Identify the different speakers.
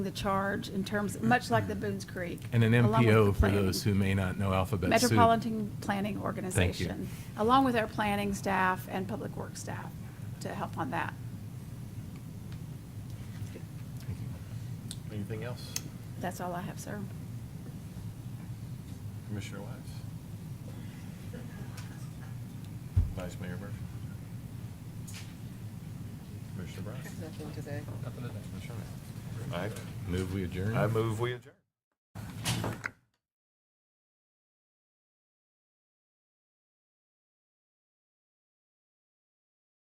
Speaker 1: the charge in terms, much like the Boones Creek.
Speaker 2: And an
Speaker 1: along with the
Speaker 2: MPO, for
Speaker 1: plan-
Speaker 2: those who may not know Alphabet Soup.
Speaker 1: Metropolitan Planning Organization, along with our planning staff and public works staff to help on that.
Speaker 3: Anything else?
Speaker 1: That's all I have, sir.
Speaker 3: Commissioner Wise? Vice Mayor Murphy? Commissioner Brown?
Speaker 4: Nothing today.
Speaker 3: I
Speaker 2: Move we adjourn?
Speaker 3: I move we adjourn.